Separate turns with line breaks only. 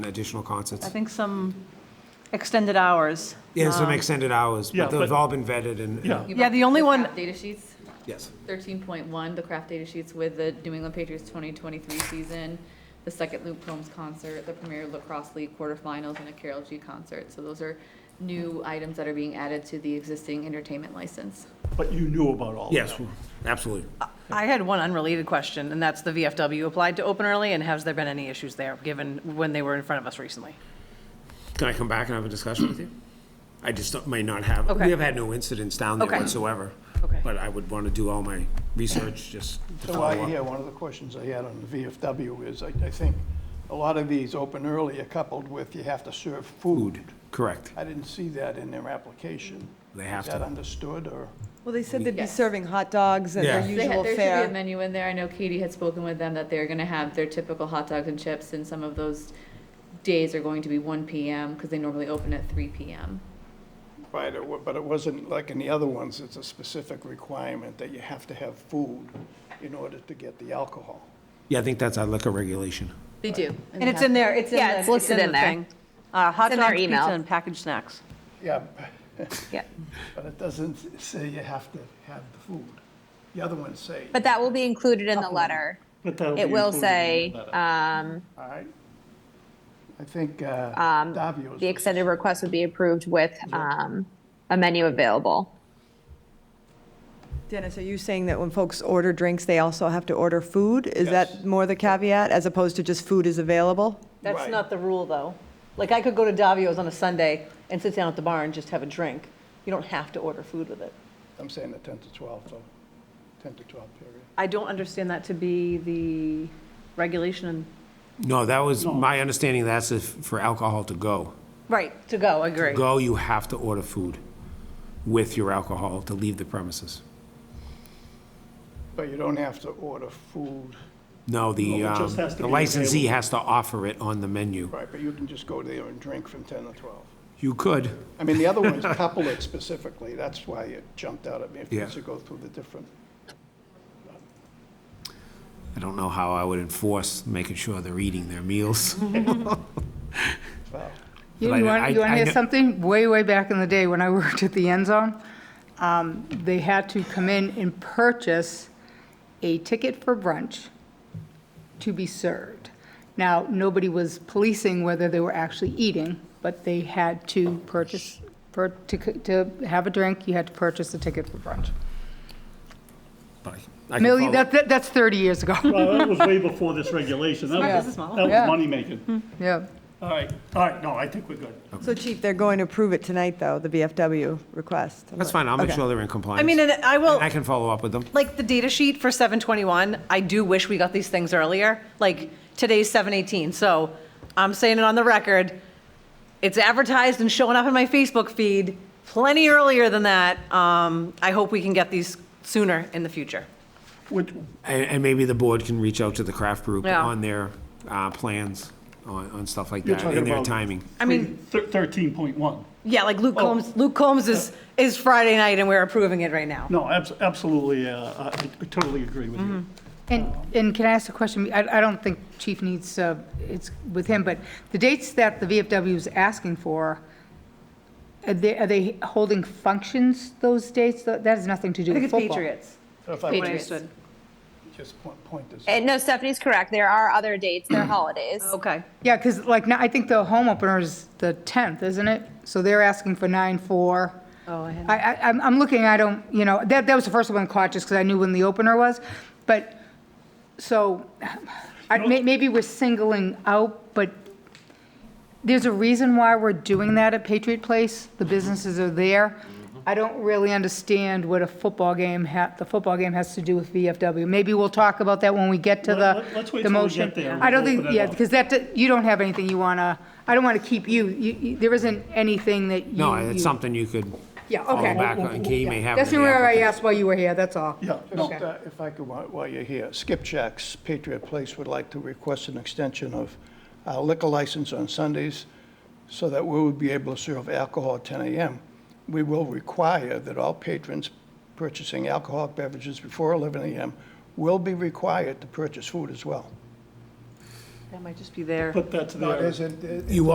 additional concerts.
I think some extended hours.
Yeah, some extended hours,
yeah,
but they've
but-
all been vetted and,
Yeah.
Yeah, the only one-
craft Data sheets,
yes.
thirteen point one, the craft data sheets with the New England Patriots twenty twenty-three season, the second Luke Combs concert, the Premier Lacrosse League quarterfinals, and a Carol G concert. So those are new items that are being added to the existing entertainment license.
But you knew about all of
Yes,
that.
absolutely.
I had one unrelated question, and that's the VFW applied to open early, and has there been any issues there, given when they were in front of us recently?
Can I come back and have a discussion with you? I just don't- may not have, we
Okay.
have had no incidents down there
Okay.
whatsoever.
Okay.
But I would want to do all my research, just to
So
follow
while you're
up.
here, one of the questions I had on the VFW is, I, I think a lot of these open early are coupled with you have to serve food.
Food, correct.
I didn't see that in their application.
They have
Is that
to.
understood, or?
Well, they said they'd be
Yes.
serving hot dogs and
Yeah.
their
They
They
usual
had- There should be a
fare.
menu in there. I know Katie had spoken with them that they're gonna have their typical hot dogs and chips, and some of those days are going to be one PM, because they normally open at three PM.
Right, it wa- but it wasn't like in the other ones, it's a specific requirement that you have to have food in order to get the alcohol.
Yeah, I think that's our liquor regulation.
They do.
And it's in there, it's in the.
Yeah, it's listed
the
in there.
thing. Uh, Hot
It's in their
dogs, pizza,
email.
and packaged snacks.
Yeah,
Yeah.
but it doesn't say you have to have the food. The other ones say,
But that will be included in the letter.
But that'll be
It will
included in the
say,
letter.
um,
all right? I think uh,
Um,
Davio's.
the extended request would be approved with, um, a menu available.
Dennis, are you saying that when folks order drinks, they also have to order food? Is that more the caveat, as opposed to just food is available?
That's
Right.
not the rule, though. Like, I could go to Davio's on a Sunday and sit down at the bar and just have a drink. You don't have to order food with it.
I'm saying the 10 to 12, so 10 to 12 period.
I don't understand that to be the regulation
No, that was, my understanding, that's if, for alcohol to go.
Right. To go, agree.
Go, you have to order food with your alcohol to leave the premises.
But you don't have to order food,
No, the,
No, it
um,
just has to
the
be
licensee
available.
has to offer it on the menu.
right, but you can just go there and drink from 10 to 12.
You could,
I mean, the other ones couple it specifically, that's why it jumped out at me, if you
Yeah.
should go through the different.
I don't know how I would enforce making sure they're eating their meals.
You
But I-
want, you
I-
want
I
to
kn-
hear something? Way, way back in the day, when I worked at the End Zone, um, they had to come in and purchase a ticket for brunch to be served. Now, nobody was policing whether they were actually eating, but they had to purchase, pur- to c- to have a drink, you had to purchase a ticket for brunch.
But I- I can
Million,
follow-
that, that- that's 30 years ago.
Well, that was way before this regulation. That was-
business model. Hmm.
That
Yeah.
was money making.
Yeah.
All right, all right, no, I think we're good.
So Chief, they're going to approve it tonight, though, the VFW request.
That's fine, I'll make
Okay.
sure they're in compliance.
I mean, and I will.
And I can follow up with them.
like the data sheet for 721, I do wish we got these things earlier. Like today's 718, so I'm saying it on the record. It's advertised and showing up in my Facebook feed plenty earlier than that. Um, I hope we can get these sooner in the future.
Which,
And, and maybe the board can reach out to the craft group
Yeah.
on their, uh, plans, on, on stuff like
You're
that,
talking
and their
about-
timing.
I mean,
thir- 13.1.
yeah, like Luke Combs, Luke Combs is, is Friday night and we're approving it right now.
No, abs- absolutely, uh, I I totally agree with you.
Mm-hmm.
And, and can I ask a question? I, I don't think chief needs, uh, it's with him, but the dates that the VFW is asking for, are they, are they holding functions those dates? That that has nothing to do
I think
with
it's
football.
Patriots.
If I
Patriots.
would
Understood.
just point, point this,
And Uh, no, Stephanie's correct. There are other dates, they're holidays.
Okay.
Yeah, because like, now, I think the home opener is the 10th, isn't it? So they're asking for 9/4.
Oh, I had-
I, I, I'm- I'm looking, I don't, you know, that, that was the first one I caught just because I knew when the opener was. But, so, I, may- maybe we're singling out, but there's a reason why we're doing that at Patriot Place. The businesses are there. I don't really understand what a football game ha, the football game has to do with VFW. Maybe we'll talk about that when we get to
Let-
the,
let- let's wait
the
till we
motion.
get there and
I don't
we'll
think,
open it
yeah,
up.
because that, you don't have anything you want to, I don't want to keep you, you, you- there isn't anything that you.
No, it's
you-
something you could
Yeah,
follow
okay.
back on, and Katie may have. it
That's
in the
where I
application.
asked why you were here, that's all.
Yeah,
just, uh, if I could, while while you're here, Skipjack's Patriot Place would like to request an extension of our liquor license on Sundays so that we would be able to serve alcohol at 10 a.m. We will require that all patrons purchasing alcoholic beverages before 11 a.m. will be required to purchase food as well.
That might just be there.
but that's there.
That isn't,
You